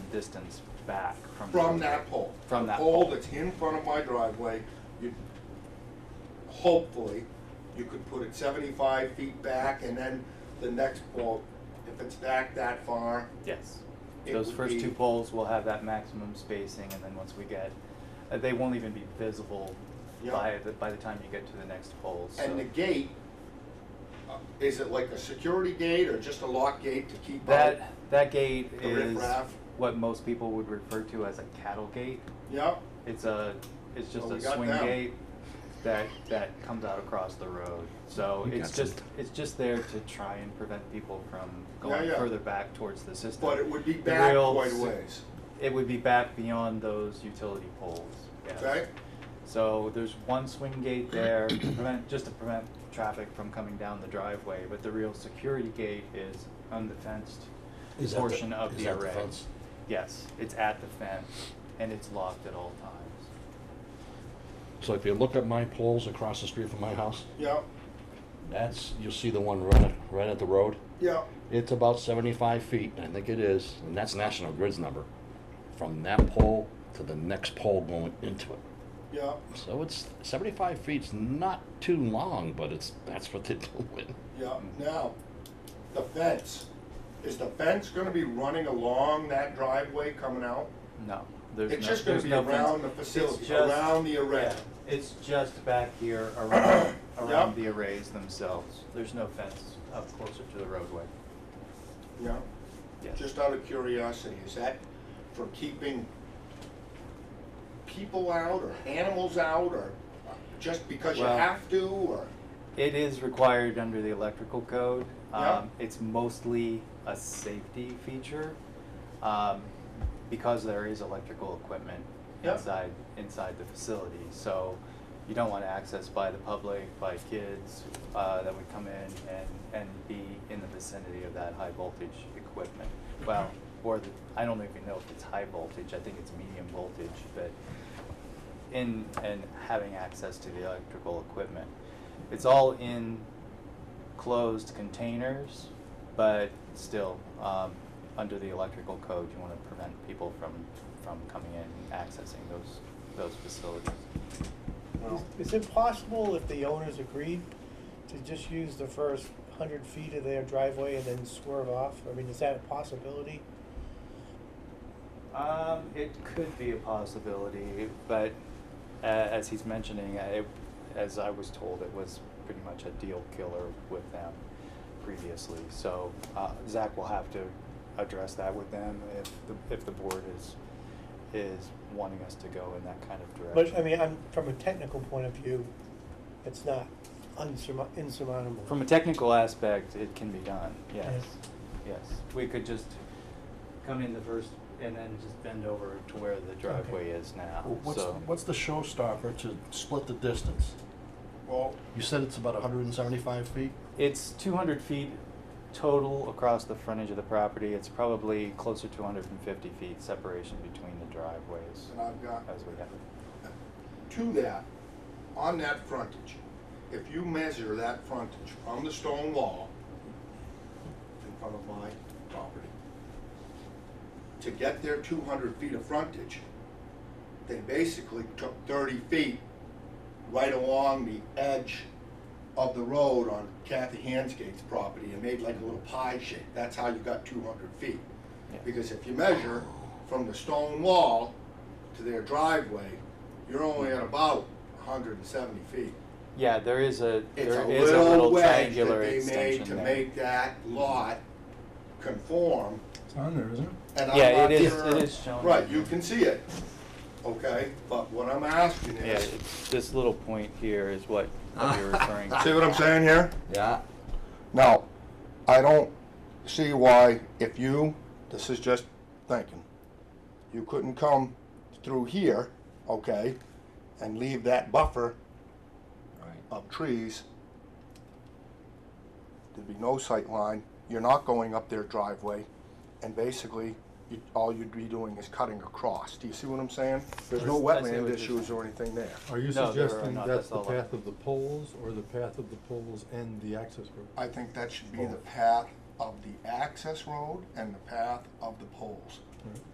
distance back from. the From roadway. that pole. From that The Pole pole. that's in front of my driveway, you, hopefully, you could put it seventy-five feet back and then the next pole, if it's back that far, Yes. It Those would first be- two poles will have that maximum spacing, and then once we get, uh, they won't even be visible Yeah. by, the by the time you get to the next pole, so. and the gate, uh, is it like a security gate or just a lock gate to keep out? That, that gate The is riprap. what most people would refer to as a cattle gate. Yep, It's a, it's just Well, a we got swing them. gate that, that comes out across the road. So We it's got just, it's just there to try and prevent people from Yeah, going yeah. further back towards the system. but it would be The back real quite a s- ways, It would be back beyond those utility poles, yes. okay? So there's one swing gate there to prevent, just to prevent traffic from coming down the driveway, but the real security gate is on the fenced Is that the- portion of is the that the array. fence? Yes, it's at the fence and it's locked at all times. So if you look at my poles across the street from my house, Yep, that's, you'll see the one right, at- right at the road. yep, It's about seventy-five feet, I think it is, and that's National Grid's number, from that pole to the next pole going into it. yep, So it's, seventy-five feet's not too long, but it's, that's what they're doing. yep. Now, the fence, is the fence gonna be running along that driveway coming out? No, there's no, It's just gonna there's be no fence. around the It's facility, just- around the array. yeah, It's just back here around, around Yep. the arrays themselves. There's no fence up closer to the roadway. Yeah, Yes. just out of curiosity, is that for keeping people out or animals out or just because you Well- have to or? It is required under the electrical code. Yeah. Um, It's mostly a safety feature, um, because there is electrical equipment Yeah. inside, inside the facility. So you don't want access by the public, by kids, uh, that would come in and, and be in the vicinity of that high voltage equipment. Well, or the, I don't even know if it's high voltage, I think it's medium voltage, but in and having access to the electrical equipment. It's all in closed containers, but still, um, under the electrical code, you want to prevent people from, from coming in and accessing those, those facilities. Well, Is is it possible if the owners agreed to just use the first hundred feet of their driveway and then swerve off? I mean, is that a possibility? Um, it could be a possibility, but uh, as he's mentioning, I, as I was told, it was pretty much a deal killer with them previously. So uh, Zach will have to address that with them if the, if the board is is wanting us to go in that kind of direction. But, I mean, I'm, from a technical point of view, it's not unsurmou- insurmountable. from a technical aspect, it can be done. Yes, Yes. yes. We could just come in the first and then just bend over to where the driveway is now. What's, so. what's the showstopper to split the distance? well, You said it's about hundred and seventy-five feet? It's two hundred feet total across the frontage of the property. It's probably closer to hundred and fifty feet separation between the driveways and I've got as we have it. to that, on that frontage, if you measure that frontage from the stone wall in front of my property, to get their two hundred feet of frontage, they basically took thirty feet right along the edge of the road on Kathy Hansgate's property and made like a little pie shape. That's how you got two hundred feet. Yeah. Because if you measure from the stone wall to their driveway, you're only at about hundred and seventy feet. Yeah, there is a, It's a there is a little little wedge that triangular they made to extension there. make that lot conform. It's on there, isn't it? And I'm Yeah, not it is- sure- it is shown. Right, you can see it, okay? But what I'm asking Yeah, is, it's, this little point here is what what you're referring to. see what I'm saying here? Yeah. Now, I don't see why if you, this is just thinking, you couldn't come through here, okay, and leave that buffer of trees. There'd be no sight line. You're not going up their driveway, and basically, you, all you'd be doing is cutting across. Do you see what I'm saying? There's no I see what wetland you're issues or anything there. Are you No, there are suggesting not. That's that's the all I- path of the poles, or the path of the poles and the access road? I think that should be the path of the access road and the path of the poles.